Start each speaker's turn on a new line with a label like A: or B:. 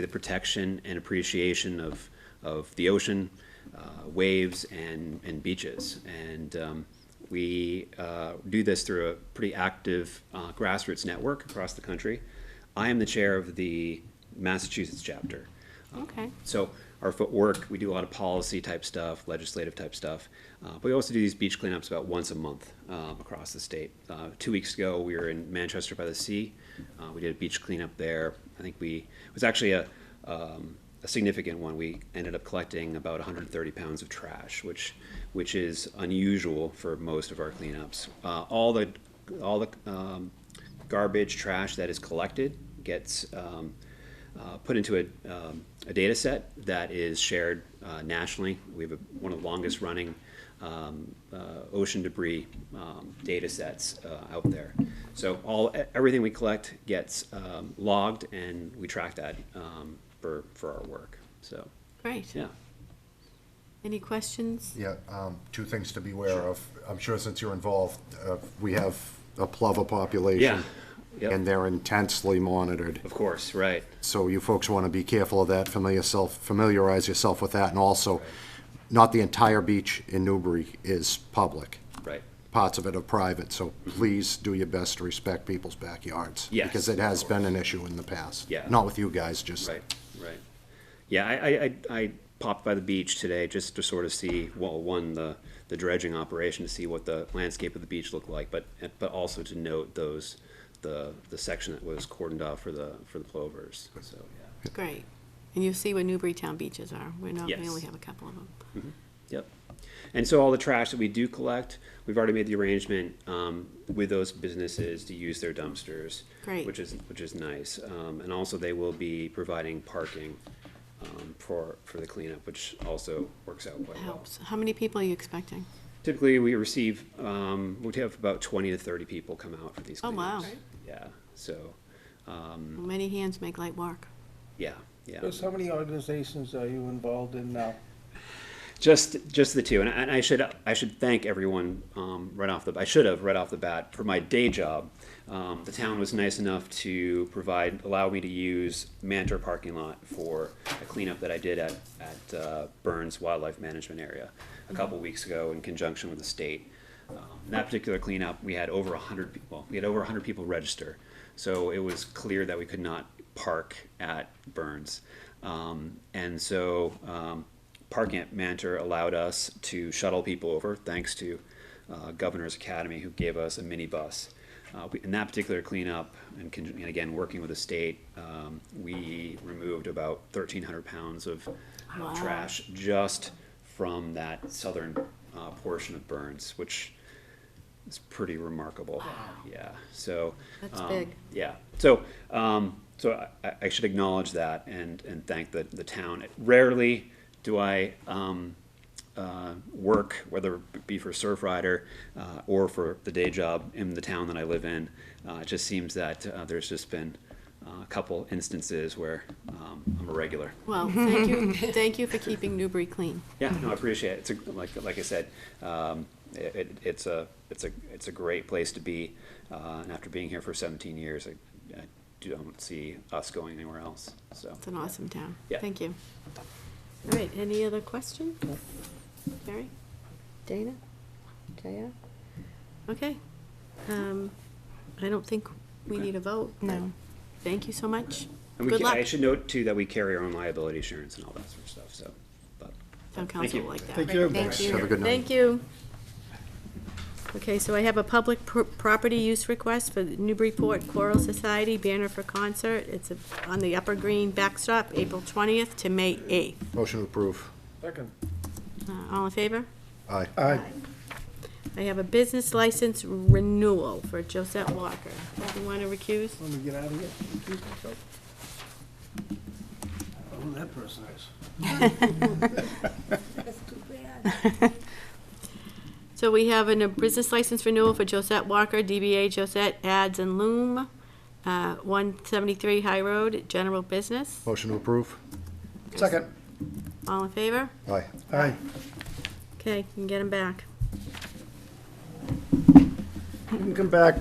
A: the protection and appreciation of, of the ocean, uh, waves, and, and beaches. And um, we uh, do this through a pretty active uh, grassroots network across the country. I am the chair of the Massachusetts chapter.
B: Okay.
A: So our footwork, we do a lot of policy type stuff, legislative type stuff. Uh, but we also do these beach cleanups about once a month um, across the state. Uh, two weeks ago, we were in Manchester by the Sea. Uh, we did a beach cleanup there. I think we it was actually a um, a significant one. We ended up collecting about 130 pounds of trash, which which is unusual for most of our cleanups. Uh, all the all the um, garbage trash that is collected gets um, uh, put into a, um, a data set that is shared uh, nationally. We have a, one of the longest running um, uh, ocean debris um, data sets uh, out there. So all e- everything we collect gets um, logged, and we track that um, for for our work. So
B: Great.
A: yeah,
B: Any questions?
C: Yeah, um, two things to be aware of. I'm sure since you're involved, uh, we have a plover
A: yeah,
C: population.
A: Yep.
C: And they're intensely monitored.
A: of course, right.
C: So you folks want to be careful of that, familiar yourself, familiarize yourself with that. And also, not the entire beach in Newbury is public.
A: Right.
C: Parts of it are private, so please do your best to respect people's backyards.
A: Mm-hmm. Yes,
C: Because it has
A: of
C: been an issue in the past.
A: Yeah.
C: Not with you guys, just.
A: Right, right. Yeah, I, I, I, I popped by the beach today just to sort of see, well, one, the, the dredging operation to see what the landscape of the beach looked like, but, but also to note those, the, the section that was cordoned off for the, for the plovers, so, yeah.
B: Great. And you see what Newburytown beaches are. We're not, we
A: Yes.
B: only have a couple of them.
A: Yep. And so all the trash that we do collect, we've already made the arrangement, um, with those businesses to use their dumpsters.
B: Great.
A: Which is, which is nice. Um, and also they will be providing parking, um, for, for the cleanup, which also works out quite well.
B: Helps. How many people are you expecting?
A: Typically, we receive, um, we have about twenty to thirty people come out for these
B: Oh, wow.
A: cleanups. Yeah, so, Hmm.
B: Many hands make light work.
A: yeah, yeah.
D: So how many organizations are you involved in now?
A: Just, just the two, and I, and I should, I should thank everyone um, right off the. I should have right off the bat for my day job. Um, the town was nice enough to provide, allow me to use Mantor parking lot for a cleanup that I did at at uh, Burns Wildlife Management Area a couple weeks ago in conjunction with the state. Um, that particular cleanup, we had over hundred people. We had over hundred people register, so it was clear that we could not park at Burns, um, and so. Um, parking at Mantor allowed us to shuttle people over, thanks to uh, Governor's Academy, who gave us a minibus. Uh, we- In that particular cleanup, and con- and again, working with the state, um, we removed about 1,300 pounds of of
B: Wow.
A: trash just from that southern uh, portion of Burns, which is pretty remarkable. Yeah, so.
B: That's
A: um,
B: big.
A: yeah, so, um, so I, I should acknowledge that and, and thank the, the town. Rarely do I, um, uh, work, whether it be for Surf Rider, uh, or for the day job in the town that I live in. Uh, it just seems that, uh, there's just been uh, a couple instances where, um, I'm a regular.
B: Well, thank you, thank you for keeping Newbury clean.
A: Yeah, no, I appreciate it. It's a, like, like I said, um, it, it- it's a, it's a, it's a great place to be. Uh, and after being here for seventeen years, I, I don't see us going anywhere else, so.
B: It's an awesome town.
A: Yeah.
B: Thank you. All right, any other questions? Mary? Dana? Jaya? Okay. Um, I don't think we need a vote. No. Thank you so much.
A: And we
B: Good
A: ca-
B: luck.
A: I should note too that we carry our own liability insurance and all that sort of stuff, so, but.
B: Town
A: Thank
B: council
A: you.
B: will like that.
D: Thank you.
B: Thank you.
C: Have a good night.
B: Thank you. Okay, so I have a public pro- property use request for the Newburyport Choral Society banner for concert. It's a- on the Upper Green backstop, April 20th to May 8th.
C: Motion to approve.
D: Second.
B: Uh, All in favor?
C: Aye.
D: Aye.
B: I have a business license renewal for Josette Walker. Do you want to recuse?
D: Let me get out of here. Excuse myself. Oh, Who that person is.
B: So we have an- a business license renewal for Josette Walker, DBA Josette Ads and Loom, uh, 173 High Road, general business.
C: Motion to approve. Second.
B: All in favor?
C: Aye.
D: Aye.
B: Okay, you can get them back.
D: You can come back